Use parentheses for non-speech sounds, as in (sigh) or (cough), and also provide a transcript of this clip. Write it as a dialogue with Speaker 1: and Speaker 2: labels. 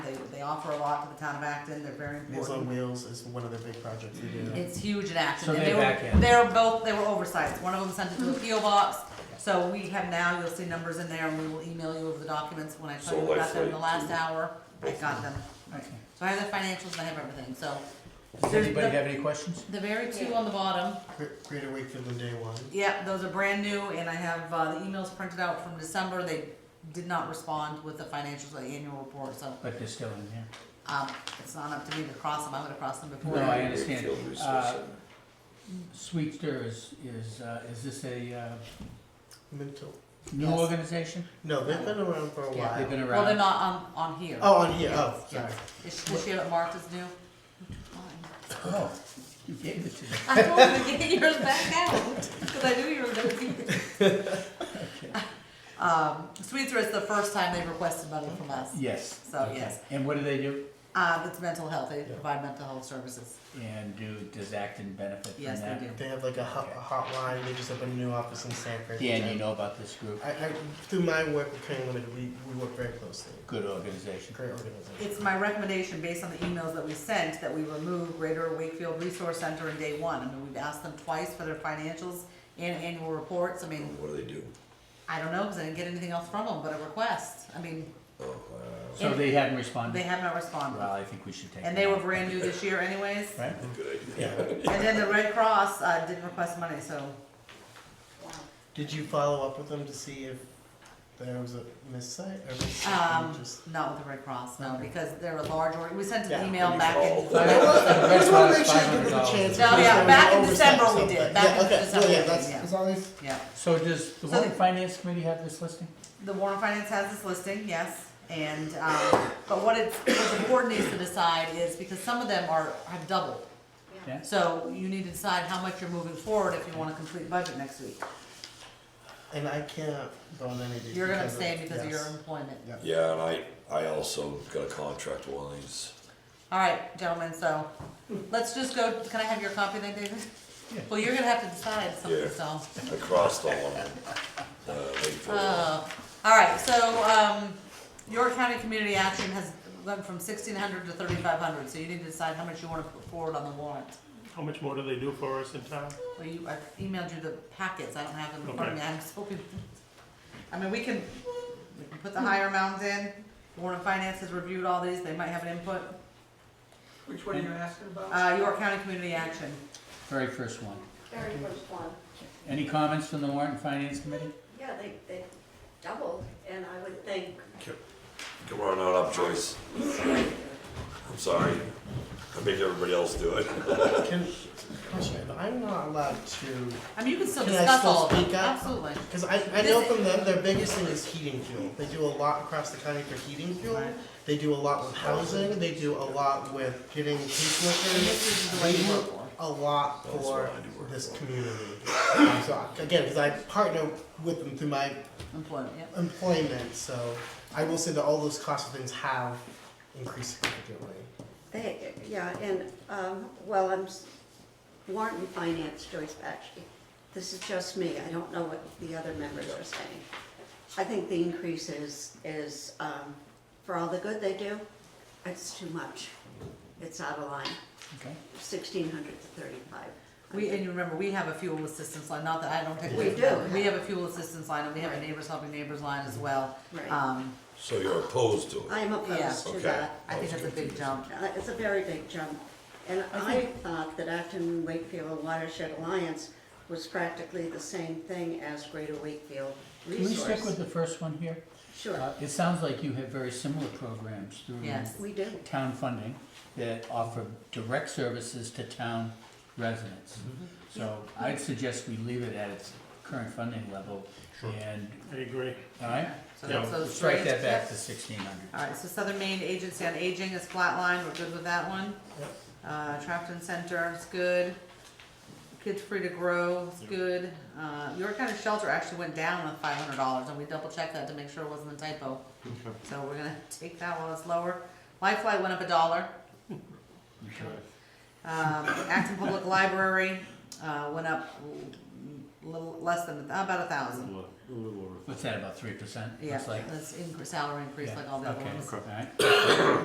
Speaker 1: They offer a lot to the town of Acton, they're very
Speaker 2: Meals on
Speaker 1: important.
Speaker 2: Wheels is one of their big projects they do.
Speaker 1: It's huge in Acton.
Speaker 3: So
Speaker 1: and
Speaker 3: they're
Speaker 1: they were-
Speaker 3: back in.
Speaker 1: They were both, they were oversights. One of them sent it to a PO box. So we have now, you'll see numbers in there and we will email you over the documents when I
Speaker 4: So
Speaker 1: tell you about them in the last
Speaker 4: Lifeline, too.
Speaker 1: hour. I got them. So I have the financials and I have everything, so. there's
Speaker 3: anybody
Speaker 1: the-
Speaker 3: have any questions?
Speaker 1: The very two on the bottom,
Speaker 2: Gre- Greater Wakefield on day one.
Speaker 1: Yep, those are brand new, and I have, uh, the emails printed out from December, they did not respond with the financials, the annual report, so,
Speaker 3: But they're still in there.
Speaker 1: um, it's not up to me to cross them, I'm gonna cross them before.
Speaker 3: No, I
Speaker 1: I
Speaker 3: understand.
Speaker 4: Wakefield Resource
Speaker 3: Uh,
Speaker 4: Center.
Speaker 3: Sweetster is, is, uh, is this a, uh,
Speaker 2: Mental.
Speaker 3: new
Speaker 1: Yes.
Speaker 3: organization?
Speaker 2: No, they've been around for a
Speaker 1: Yeah.
Speaker 3: They've
Speaker 2: while.
Speaker 3: been
Speaker 1: Well, they're
Speaker 3: around.
Speaker 1: not on, on here.
Speaker 2: Oh, on here, oh,
Speaker 1: Yeah.
Speaker 2: sorry.
Speaker 1: Is, does she have it marked as new?
Speaker 3: Oh, You gave it to them.
Speaker 2: (laughs)
Speaker 1: I told her to get yours back out, cause I knew you were gonna keep it.
Speaker 2: (laughs)
Speaker 1: Um, Sweetser is the first time they've requested money from us,
Speaker 3: Yes.
Speaker 1: So,
Speaker 3: okay.
Speaker 1: yes.
Speaker 3: And what do they do?
Speaker 1: uh, it's mental health, they
Speaker 2: Yeah.
Speaker 1: provide mental health services,
Speaker 3: And do, does Acton benefit from that?
Speaker 1: yes, they do.
Speaker 2: They have like a hot, a hotline, they just opened a new office in Sanford.
Speaker 3: Dan,
Speaker 2: which I-
Speaker 3: you know about this group?
Speaker 2: I, I, through my work with Crane Limited, we, we work very closely.
Speaker 3: Good organization.
Speaker 2: Great organization.
Speaker 1: It's my recommendation, based on the emails that we sent, that we remove Greater Wakefield Resource Center in day one. I mean, we've asked them twice for their financials and annual reports. I mean,
Speaker 4: What do they do?
Speaker 1: I don't know, because I didn't get anything else from them but a request. I mean,
Speaker 4: Oh, wow.
Speaker 3: So they haven't responded?
Speaker 1: they have not
Speaker 3: Well,
Speaker 1: responded.
Speaker 3: I think we should take.
Speaker 1: And
Speaker 3: them
Speaker 1: they were
Speaker 3: out.
Speaker 1: brand new this year anyways.
Speaker 3: Right?
Speaker 4: Good idea.
Speaker 2: Yeah.
Speaker 1: And then the Red Cross uh, didn't request money, so
Speaker 2: Did you follow up with them to see if there was a missite or was it
Speaker 1: Um,
Speaker 2: just?
Speaker 1: not with the Red Cross, no,
Speaker 2: Okay.
Speaker 1: because they're a large org. We sent
Speaker 2: Yeah,
Speaker 1: an email
Speaker 4: and you
Speaker 1: back in.
Speaker 4: called.
Speaker 3: Five-
Speaker 2: I just wanna make
Speaker 3: that's
Speaker 2: sure you give them a
Speaker 3: $500.
Speaker 2: chance.
Speaker 1: No,
Speaker 2: because
Speaker 1: yeah,
Speaker 2: they
Speaker 1: back in
Speaker 2: overstepped
Speaker 1: December we
Speaker 2: something.
Speaker 1: did. Back in
Speaker 2: Yeah, okay,
Speaker 1: December
Speaker 2: yeah,
Speaker 1: we did,
Speaker 2: that's-
Speaker 1: yeah.
Speaker 2: As long as,
Speaker 1: Yeah.
Speaker 3: So does the
Speaker 1: So
Speaker 3: Warren
Speaker 1: they-
Speaker 3: Finance Committee have this listing?
Speaker 1: The Warren Finance has this listing, yes, and, um, but what it's, what the board needs to decide is, because some of them are, have doubled.
Speaker 3: Yeah.
Speaker 1: So you need to decide how much you're moving forward if you wanna complete budget next week.
Speaker 2: and I can't go on any of these.
Speaker 1: You're gonna
Speaker 2: because of-
Speaker 1: abstain because of your
Speaker 2: yes.
Speaker 1: employment.
Speaker 2: Yeah.
Speaker 4: Yeah, and I, I also got a contract with one of these.
Speaker 1: All right, gentlemen, so, let's just go, can I have your copy then, David? Well, you're gonna have to decide something,
Speaker 4: Yeah.
Speaker 1: so.
Speaker 4: I crossed all of them. Uh, wait for a
Speaker 1: Uh, all right, so, um, York County Community Action has went from sixteen hundred to thirty-five hundred, so you need to decide how much you wanna put forward on the warrant.
Speaker 5: How much more do they do for us in town?
Speaker 1: Well, you, I emailed you the packets, I don't have them in front of me, I'm just hoping. I mean, we can, we can put the higher amounts in, Warren Finance has reviewed all these, they might have an input.
Speaker 6: Which one are you asking about?
Speaker 1: Uh, York County Community Action,
Speaker 3: Very first one.
Speaker 7: Very first one.
Speaker 3: Any comments from the Warren Finance Committee?
Speaker 7: Yeah, they, they doubled, and I would think,
Speaker 4: Come on out up, Joyce. I'm sorry. I make everybody else do it.
Speaker 2: Can, question, I'm not allowed to,
Speaker 1: I mean, you can still
Speaker 2: Can I
Speaker 1: discuss
Speaker 2: still
Speaker 1: all of them,
Speaker 2: speak up?
Speaker 1: absolutely.
Speaker 2: because I, I know from them, their biggest thing is heating fuel. They do a lot across the county for heating fuel. They do a lot with housing, they do a lot with getting
Speaker 1: And
Speaker 2: caseworkers.
Speaker 1: this is the way you work for.
Speaker 2: a lot
Speaker 4: That's
Speaker 2: for
Speaker 4: what I do work
Speaker 2: this
Speaker 4: for.
Speaker 2: community. Um, so I- again, because I partner with them through my
Speaker 1: employment, yep.
Speaker 2: employment, so I will say that all those cost of things have increased significantly.
Speaker 7: they, yeah, and, um, well, I'm s- warrant and finance, Joyce Bakshi. This is just me, I don't know what the other members are saying. I think the increase is, is, um, for all the good they do, it's too much. It's out of line,
Speaker 3: Okay.
Speaker 7: sixteen hundred to thirty-five.
Speaker 1: We, and you remember, we have a fuel assistance line, not that I don't take.
Speaker 7: We
Speaker 1: away from that.
Speaker 7: do.
Speaker 1: We have a fuel assistance line, and we have a neighbors helping neighbors line as well.
Speaker 7: Right.
Speaker 1: Um,
Speaker 4: So you're opposed to
Speaker 7: I
Speaker 4: it?
Speaker 7: am
Speaker 1: Yeah.
Speaker 7: opposed to
Speaker 4: Okay.
Speaker 7: that.
Speaker 1: I think that's a big jump.
Speaker 7: Uh, It's a very big jump. And I thought that Acton Wakefield Watershed Alliance was practically the same thing as Greater Wakefield
Speaker 3: Can we stick with
Speaker 7: Resource.
Speaker 3: the first one here?
Speaker 7: Sure,
Speaker 3: Uh, It sounds like you have very similar programs through
Speaker 1: Yes.
Speaker 7: we do.
Speaker 3: town funding that offer direct services to town residents. So I'd suggest we leave it at its current funding level and,
Speaker 5: I agree.
Speaker 3: all right?
Speaker 1: So
Speaker 5: Yeah,
Speaker 1: that's those
Speaker 3: Strike
Speaker 1: three.
Speaker 3: that back to
Speaker 1: Yep.
Speaker 3: sixteen hundred.
Speaker 1: All right, so Southern Maine Agency on Aging is flatline, we're good with that one.
Speaker 2: Yep.
Speaker 1: Uh, Trafton Center is good. Kids Free to Grow is good. Uh, York County Shelter actually went down with five hundred dollars, and we double checked that to make sure it wasn't a typo. So we're gonna take that while it's lower. Lifeline went up a dollar. Um, Acton Public Library, uh, went up a little less than, about a thousand.
Speaker 3: What's that, about three percent?
Speaker 1: Yeah,
Speaker 3: Looks like,
Speaker 1: that's in, salary increase
Speaker 3: yeah,
Speaker 1: like all the other
Speaker 3: okay,
Speaker 1: ones.
Speaker 3: all right.